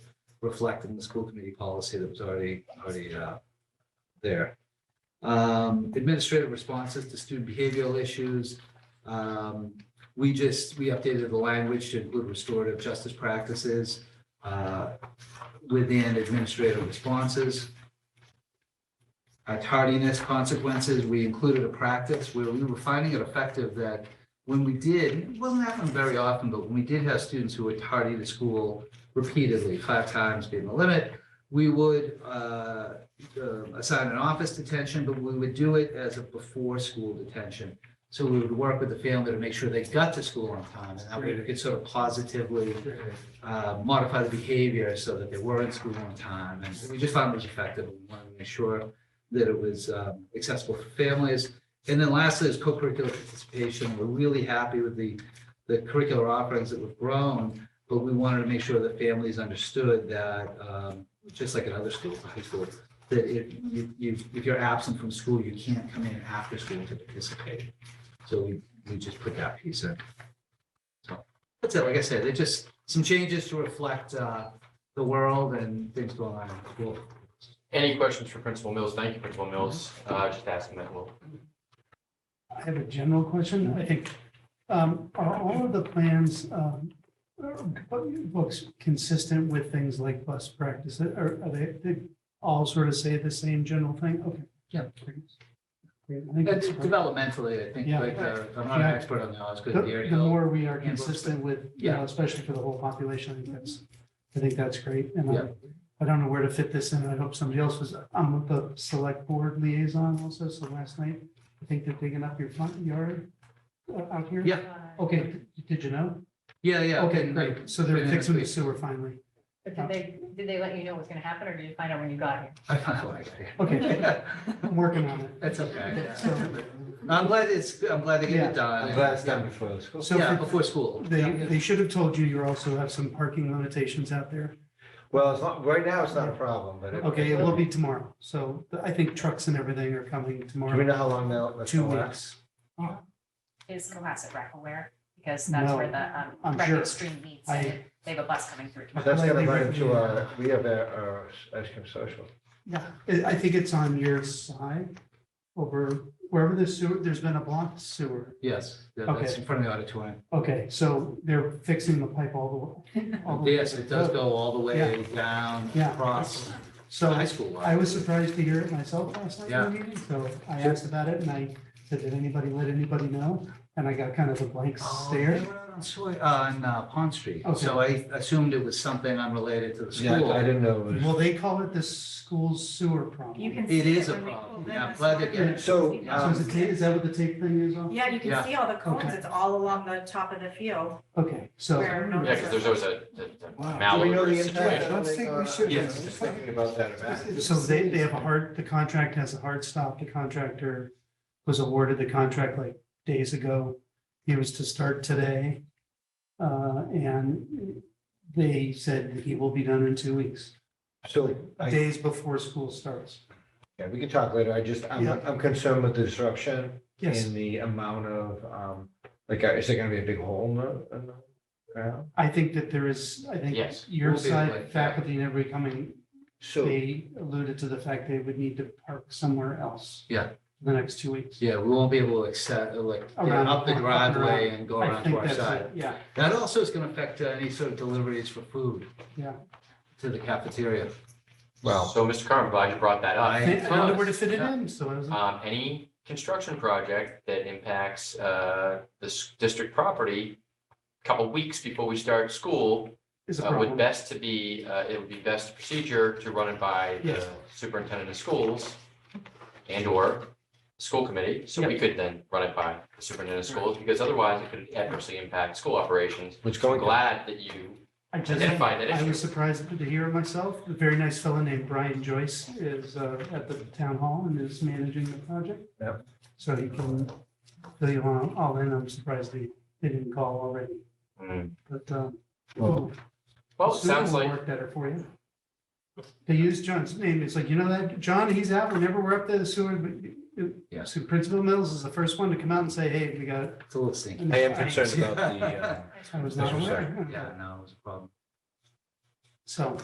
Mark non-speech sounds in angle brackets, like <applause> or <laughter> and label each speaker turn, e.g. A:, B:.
A: reflected in the school committee policy that was already, already uh, there. Um, Administrative responses to student behavioral issues. Um, We just, we updated the language to include restorative justice practices uh, within administrative responses. Uh, Tardiness consequences, we included a practice where we were finding it effective that when we did, it wasn't happening very often, but when we did have students who were tardy to school repeatedly, five times being the limit, we would uh, uh, assign an office detention, but we would do it as a before-school detention. So we would work with the family to make sure they got to school on time, and that way we could sort of positively uh, modify the behavior so that they were in school on time. And we just found it was effective. We wanted to make sure that it was um, accessible for families. And then lastly is co-curricular participation. We're really happy with the, the curricular offerings that we've grown, but we wanted to make sure that families understood that, um, just like in other schools, high school, that if you, you, if you're absent from school, you can't come in after school to participate. So we, we just put that piece in. So That's it. uh, Like I said, they just, some changes to reflect uh, the world and things going on in the school.
B: Any questions for Principal Mills? Thank you, Principal Mills. Uh, just ask him that. Well,
C: I have a general question. I think, um, are all of the plans, um, uh, books consistent with things like bus practice? Are, are they, they all sort of say the same general thing? Okay.
A: Yeah.
C: Great. I think
A: That's
C: it's-
A: developmentally, I think,
C: Yeah.
A: like, uh, I'm not an
C: Yeah.
A: expert on the Osgood
C: The
A: Dairy
C: the
A: Hill.
C: more we are
A: Yeah, books,
C: consistent with, you
A: Yeah.
C: know, especially for the whole population, I think that's, I think that's great. And
A: Yeah.
C: I- I don't know where to fit this in. I hope somebody else was, I'm the select board liaison also, so last night, I think they're digging up your front yard uh, out here.
A: Yeah.
C: Okay, did you know?
A: Yeah, yeah.
C: Okay,
A: and-
C: great. So they're
A: and then
C: fixing the
A: it's-
C: sewer finally.
D: But did they, did they let you know what was gonna happen, or did you find out when you got here?
A: <laughs> I found out later.
C: Okay, I'm working on
A: <laughs>
C: it.
A: That's okay.
C: So-
A: No, I'm glad it's, I'm glad they get it done.
E: I'm glad it's done before the school.
C: So
A: Yeah,
C: for-
A: before school.
C: they, they should have told you you also have some parking limitations out there.
E: Well, it's not, right now, it's not a problem, but. it-
C: Okay, it will be tomorrow. So I think trucks and everything are coming
E: Do we
C: tomorrow,
E: know how long they'll? that's
C: two
E: gonna last?
C: weeks.
D: Is Cohasset rec aware? Because that's where
C: No,
D: the,
C: I'm
D: um, rec
C: sure.
D: stream meets,
C: I-
D: and they have a bus coming through tomorrow.
E: That's gonna
C: Like,
E: run
C: they-
E: into our, we have our, our ice cream social.
C: Yeah, I, I think it's on your side over wherever the sewer, there's been a blocked sewer.
A: Yes, yeah, that's in front of the auditorium.
C: Okay, so they're fixing the pipe all the way. all the way
A: Yes,
C: to the
A: it does
C: road.
A: go all the way down,
C: Yeah.
A: across the
C: So
A: high school. lot.
C: I was surprised to hear it myself last night
A: Yeah.
C: in the meeting, so I asked about it and I said, did anybody let anybody know? And I got kind of a blank
A: Oh,
C: stare.
A: they were out On Soy- on, uh, Pond Street,
C: Okay.
A: so I assumed it was something unrelated to the school.
E: I didn't know. it was-
C: Well, they call it the school sewer problem.
F: You can.
A: It
F: see
A: is a
F: when we pull
A: problem.
F: them.
A: Yeah, I'm glad they're getting
C: it.
E: So,
F: You
C: So
F: know.
E: um,
C: is it ta- is that what the tape thing is on?
F: Yeah, you
A: Yeah.
F: can see all the cones.
C: Okay.
F: It's all along the top of the field.
C: Okay, so.
F: Where no-
B: yeah, because there's always a, a- a
E: do we know
B: malware
E: the impact? I
B: situation.
E: don't think
G: Yes.
E: we should.
B: Yes.
E: I'm just thinking about that. event.
C: So they, they have a hard, the contract has a hard stop. The contractor was awarded the contract like days ago. He was to start today. Uh, and they said that he will be done in two weeks,
E: So, I,
C: days before school starts.
E: yeah, we can talk later. I just, I'm,
C: Yeah.
E: I'm concerned with the disruption
C: Yes,
E: and the amount of, um, like, is there gonna be a big hole in the, in the ground?
C: I think that there is, I think
B: Yes.
C: your
A: We'll be
C: side
A: like-
C: faculty and everybody coming,
E: So,
C: they alluded to the fact they would need to park somewhere else.
A: Yeah.
C: The next two weeks.
A: Yeah, we won't be able to accept, uh, like, get
C: Around-
A: up the
C: up and
A: driveway and go
C: I
A: around to
C: think
A: our
C: that's
A: side.
C: it. Yeah,
A: That also is gonna affect uh, any sort of deliveries for food.
C: Yeah.
A: To the cafeteria.
E: well,
B: So, Mr. Carmen, glad you brought that
C: I
B: up.
A: I-
C: think- I don't know where to fit it in, so I was.
B: Um, any construction project that impacts, uh, this district property, couple weeks before we start school,
C: is a
B: uh, would
C: problem.
B: best to be, uh, it would be best procedure to run it by the
C: Yes.
B: superintendent of schools and or school committee, so we could then run it by the superintendent of schools, because otherwise it could adversely impact school operations.
E: what's
B: I'm
C: Oh,
E: going on?
B: glad that you,
C: I just,
B: identify that
C: I
B: issue.
C: was surprised to hear it myself. A very nice fellow named Brian Joyce is uh, at the town hall and is managing the project.
E: Yep.
C: So he can fill you on, all in. I'm surprised they, they didn't call already,
B: Mm.
C: but. um,
E: Well,
B: well, it
C: soon
B: Oh, sounds
C: it'll
B: like,
C: Work better for you. They use John's name. It's like, you know that, John, he's out whenever we're up there, the sewer. but-
A: Yeah.
C: So Principal Mills is the first one to come out and say, hey, we got.
A: It's a little stinky.
E: I am concerned about the, uh,
C: I was not
E: That's what I'm
C: aware.
A: Yeah, no, it was a problem.
C: So.